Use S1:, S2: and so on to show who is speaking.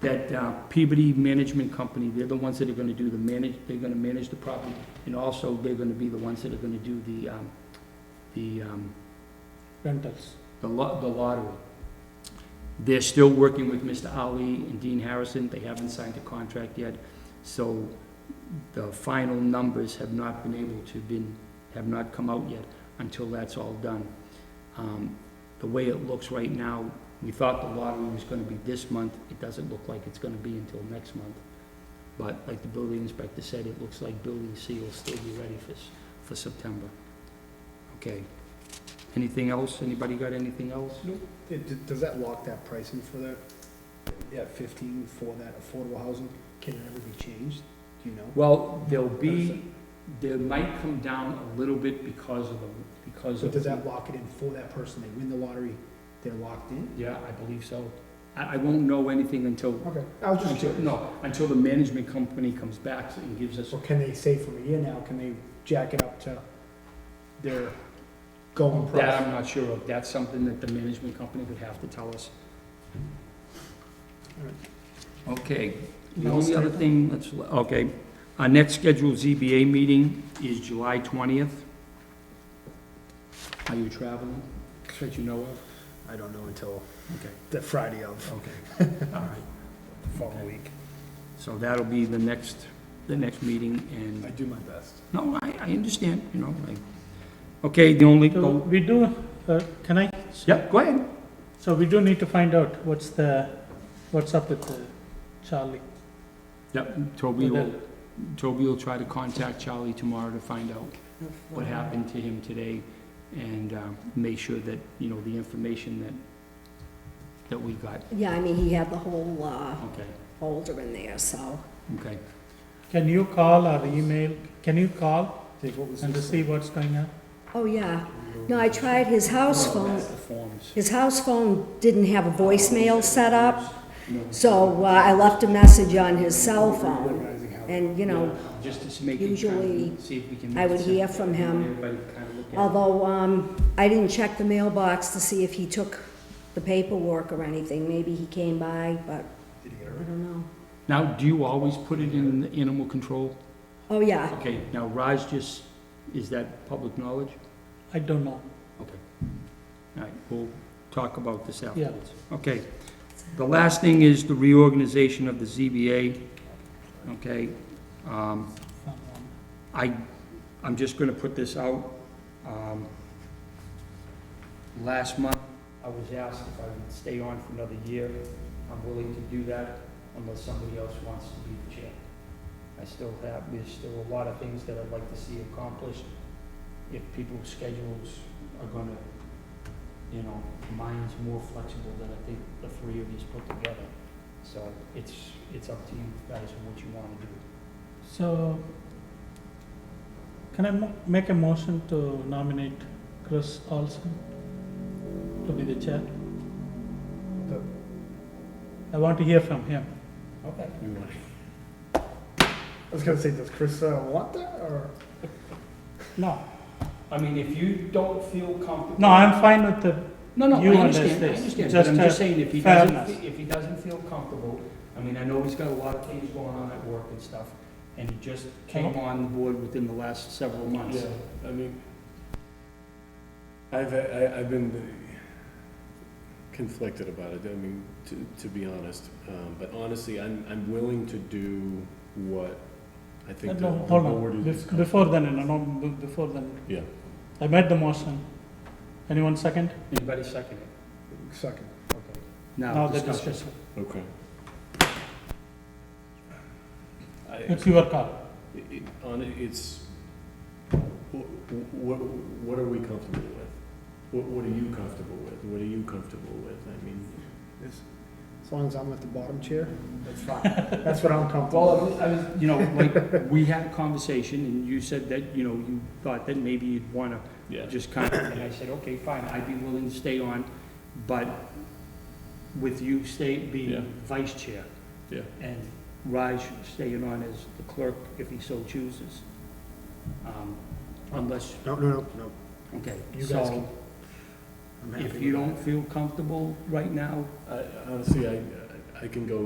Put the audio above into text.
S1: that uh, Peabody Management Company, they're the ones that are gonna do the manage, they're gonna manage the property, and also they're gonna be the ones that are gonna do the, um, the, um,
S2: rentals.
S1: the lo- the lottery. They're still working with Mr. Ali and Dean Harrison, they haven't signed a contract yet, so the final numbers have not been able to been, have not come out yet until that's all done. Um, The way it looks right now, we thought the lottery was gonna be this month, it doesn't look like it's gonna be until next month. But like the building inspector said, it looks like building C will still be ready for, s- for September. Okay, anything else, anybody got anything else?
S3: It- d- Does that lock that pricing for that, yeah, fifteen for that affordable housing? Can it ever be changed? Do you know?
S1: Well, there'll be, there might come down a little bit because of, the- because
S3: So
S1: of.
S3: does that lock it in for that person? They win the lottery, they're locked in?
S1: Yeah, I believe so. I, I won't know anything until,
S3: Okay, I was just
S1: until,
S3: curious.
S1: no, until the management company comes back and gives us,
S3: Or can they say from a year now, can they jack it up to their going
S1: that
S3: price?
S1: I'm not sure of. That's something that the management company would have to tell us.
S3: Alright.
S1: Okay, the
S3: No
S1: only other
S3: stipend?
S1: thing, that's, okay, our next scheduled ZBA meeting is July twentieth. Are you traveling, that you know of?
S3: I don't know until
S1: Okay.
S3: the Friday of
S1: Okay, all right.
S3: the following week.
S1: So that'll be the next, the next meeting,
S3: I
S1: and,
S3: do my best.
S1: no, I, I understand, you know, like, okay, the only,
S2: So
S1: oh,
S2: we do, uh, can I?
S1: yeah, go ahead.
S2: So we do need to find out what's the, what's up with uh, Charlie.
S1: Yep, Toby will, Toby will try to contact Charlie tomorrow to find out what happened to him today, and, um, make sure that, you know, the information that, that we got,
S4: Yeah, I mean, he had the whole uh,
S1: okay,
S4: folder in there, so.
S1: okay.
S2: Can you call or email, can you call
S3: Dave, what was
S2: and
S3: this?
S2: see what's going on?
S4: Oh, yeah. No, I tried his house
S1: No,
S4: phone.
S1: that's the forms.
S4: His house phone didn't have a voicemail set up,
S1: No.
S4: so uh, I left a message on his cell phone.
S3: Organizing how-
S4: And, you know,
S1: Just to make it kind
S4: usually
S1: of, see if we can.
S4: I would
S1: make sense
S4: hear from him.
S1: Everybody kind of look at it.
S4: although um, I didn't check the mailbox to see if he took the paperwork or anything. Maybe he came by, but
S3: Did he get
S4: I
S3: it right?
S4: don't know.
S1: Now, do you always put it in the animal control?
S4: Oh, yeah.
S1: Okay, now Raj just, is that public knowledge?
S2: I don't know.
S1: Okay. All right, we'll talk about this
S2: Yeah.
S1: afterwards. Okay. The last thing is the reorganization of the ZBA. Okay. Um,
S2: Um,
S1: I, I'm just gonna put this out. Um, Last month, I was asked if I would stay on for another year. I'm willing to do that unless somebody else wants to be the chair. I still have, there's still a lot of things that I'd like to see accomplished. If people's schedules are gonna, you know, mine's more flexible than I think the three of yous put together. So it's, it's up to you guys and what you wanna do.
S2: So, can I mo- make a motion to nominate Chris Olson to be the chair?
S3: The-
S2: I want to hear from him.
S1: Okay.
S3: I was gonna say, does Chris uh, want that, or?
S2: No,
S1: I mean, if you don't feel comfortable.
S2: no, I'm fine with the,
S1: No, no, I
S2: you
S1: understand, I
S2: understand.
S1: understand, but
S2: Just uh,
S1: I'm just
S2: a
S1: saying, if he doesn't,
S2: fairness.
S1: fe- if he doesn't feel comfortable, I mean, I know he's got a lot of things going on at work and stuff, and he just came
S2: Uh-huh.
S1: on board within the last several months.
S5: Yeah, I mean, I've, I- I've been conflicted about it, I mean, to, to be honest. Um, But honestly, I'm, I'm willing to do what I think the
S2: no,
S5: the
S2: hold on,
S5: board
S2: Bef-
S5: is.
S2: before then, no, no, be- before then,
S5: Yeah,
S2: I made the motion. Anyone second?
S1: Anybody second it?
S3: Second.
S1: Okay.
S2: Now
S1: Now,
S2: the
S1: discussion.
S2: discussion,
S5: okay. I-
S2: it's your call.
S5: it- it- On, it, it's, what, what are we comfortable with? What, what are you comfortable with? What are you comfortable with? I mean,
S3: As as long as I'm at the bottom chair, that's fine. That's what I'm comfortable with.
S1: Well, I was, you know, like, we had a conversation, and you said that, you know, you thought that maybe you'd wanna
S5: yeah.
S1: just kind of, and I said, okay, fine, I'd be willing to stay on, but with you stay,
S5: Yeah.
S1: being vice chair.
S5: Yeah.
S1: And Raj staying on as the clerk if he so chooses. Um, Unless,
S3: No, no, no, no,
S1: okay,
S3: You guys
S1: so
S3: I'm happy
S1: if
S3: with
S1: you
S3: that.
S1: don't feel comfortable right now,
S5: I- Honestly, I, I can go